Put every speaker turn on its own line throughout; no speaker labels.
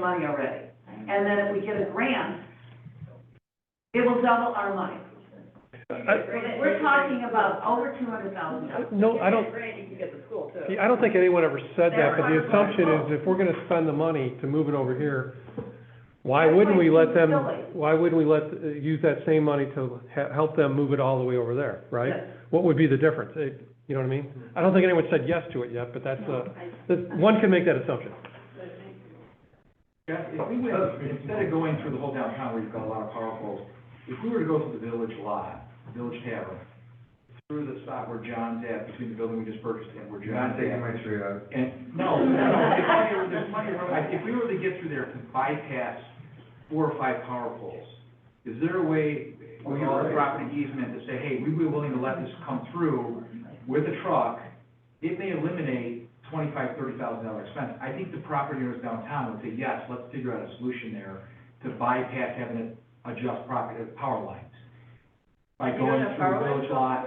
money already. And then if we get a grant, it will double our money.
I-
We're talking about over two hundred thousand dollars.
No, I don't,
Randy can get the school too.
I don't think anyone ever said that, but the assumption is if we're gonna spend the money to move it over here, why wouldn't we let them, why wouldn't we let, uh, use that same money to he- help them move it all the way over there, right? What would be the difference? It- You know what I mean? I don't think anyone said yes to it yet, but that's, uh, that- one can make that assumption.
Yeah, if we went, instead of going through the whole downtown where you've got a lot of power poles, if we were to go to the village lot, village tavern, through the spot where John's at, between the building we just purchased and where
You're not
John's
taking
at.
my tree out.
And, no, no, no, there's plenty of- there's plenty of room. I- if we were to get through there to bypass four or five power poles, is there a way,
Oh,
with
you're
our
right.
property easement, to say, hey, we'd be willing to let this come through with a truck? It may eliminate twenty-five, thirty thousand dollar expense. I think the property owners downtown would say, yes, let's figure out a solution there to bypass having to adjust property, power lines. By going through village lot,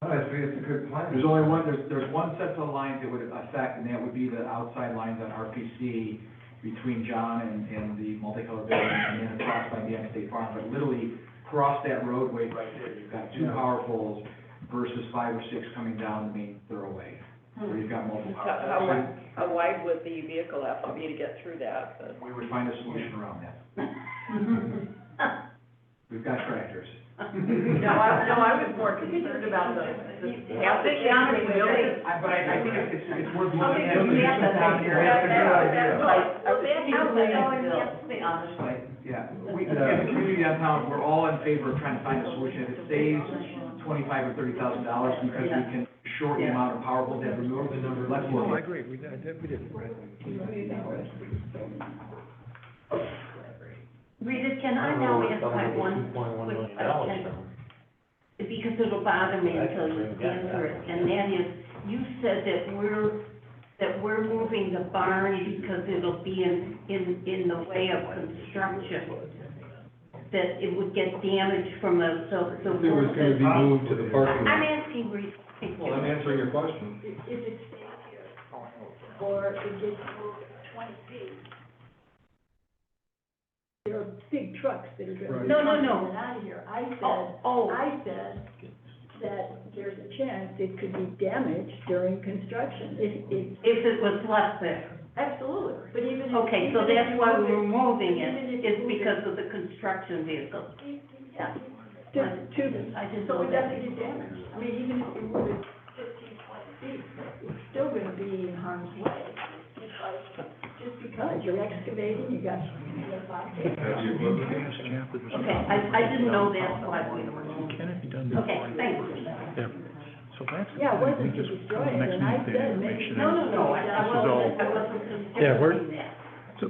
No, it's, it's a good plan.
there's only one, there's, there's one set of lines that would affect, and that would be the outside lines on RPC between John and, and the multicolored building, and then across by the State Farm, but literally cross that roadway right there, you've got two
Yeah.
power poles versus five or six coming down the main thoroughway, where you've got multiple
How, how
power
wide, how wide would the vehicle have for me to get through that?
poles. We would find a solution around that, we've got tractors.
No, I, no, I was more concerned about the, the half-inch
Yeah.
building.
I, but I, I think it's, it's- it's worth
Okay, we
looking at.
have to
down here.
That's a good
That's-
idea.
that's-
Like, I
Well,
was
that house is going
thinking-
up the honest way.
Right, yeah, we, as a community downtown, we're all in favor of trying to find a solution, if it saves twenty-five or thirty thousand dollars, because we can shorten the amount of power poles that remove the number, let's look at.
agree, we did, we did.
Rita, can I now ask my one quick question? Because it'll bother me until you answer it, and that is, you said that we're, that we're moving the barn because it'll be in, in, in the way of construction, that it would get damaged from the, so, so.
It was gonna be moved to the parking
I'm
lot.
asking Rita.
Well, I'm answering your question.
if it stays here, or it gets moved twenty feet. There are big trucks that are driving.
No, no, no.
Out of here, I
Oh,
said,
oh,
I said that there's a chance it could be damaged during construction, it, it,
if it was left there.
absolutely, but even if.
Okay, so
even if
that's
you
why
move
we're
it-
moving
even
it, is
if you move it-
because of the construction vehicles.
Yeah, to, to,
I just know
so it
that.
doesn't get damaged, I mean, even if you move it fifteen, twenty feet, it's still gonna be in harm's way. Because, just because you're excavating, you got, you got five days.
Have you looked at it?
Okay, I, I didn't know that's why we were moving.
Can it be done
Okay,
before?
thank you.
So that's. the
Yeah, it wasn't
thing, we just-
to destroy it,
the next
and I
meeting,
said, maybe-
make sure
No,
that-
no, no, I I
This is all-
wasn't, I wasn't
Yeah, we're-
considering that.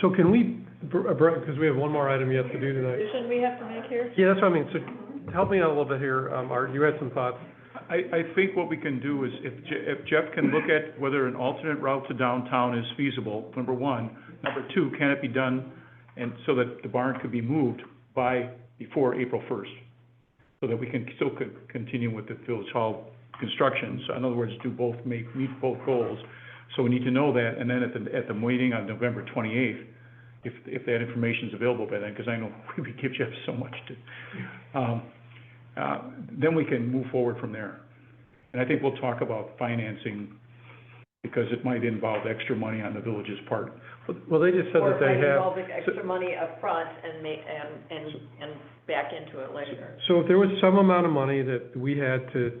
So can we, because we have one more item yet to do tonight.
Decision we have to make here?
Yeah, that's what I mean, so help me out a little bit here, um, Art, you had some thoughts.
I, I think what we can do is if, Je- if Jeff can look at whether an alternate route to downtown is feasible, number one. Number two, can it be done and so that the barn could be moved by, before April first? So that we can still co- continue with the Village Hall construction. So in other words, do both, make, meet both goals. So we need to know that and then at the, at the meeting on November twenty-eighth, if, if that information's available by then, because I know we give Jeff so much to, um, uh, then we can move forward from there. And I think we'll talk about financing, because it might involve extra money on the village's part.
Well, they just said that they have,
Or if I involve the extra money up front and ma, and, and, and back into it later.
so if there was some amount of money that we had to,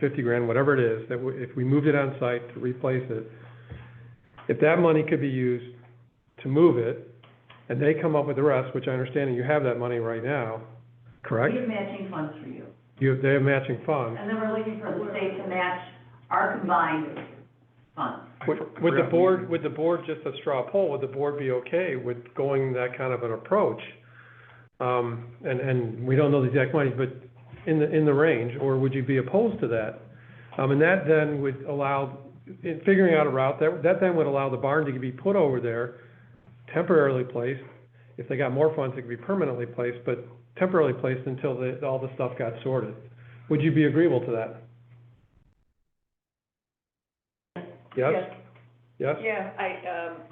fifty grand, whatever it is, that we- if we moved it on site to replace it, if that money could be used to move it, and they come up with the rest, which I understand that you have that money right now,
We
correct?
have matching funds for you.
You, have- they have matching funds.
And then we're looking for the state to match our combined funds.
I
Would,
for- I
would the
forgot we-
board, would the board, just a straw poll, would the board be okay with going that kind of an approach? Um, and, and we don't know the exact money, but in the, in the range, or would you be opposed to that? Um, and that then would allow, in figuring out a route, that, that then would allow the barn to be put over there, temporarily placed. If they got more funds, it could be permanently placed, but temporarily placed until the, all the stuff got sorted. Would you be agreeable to that? Yes? Yes?
Yeah, I, um,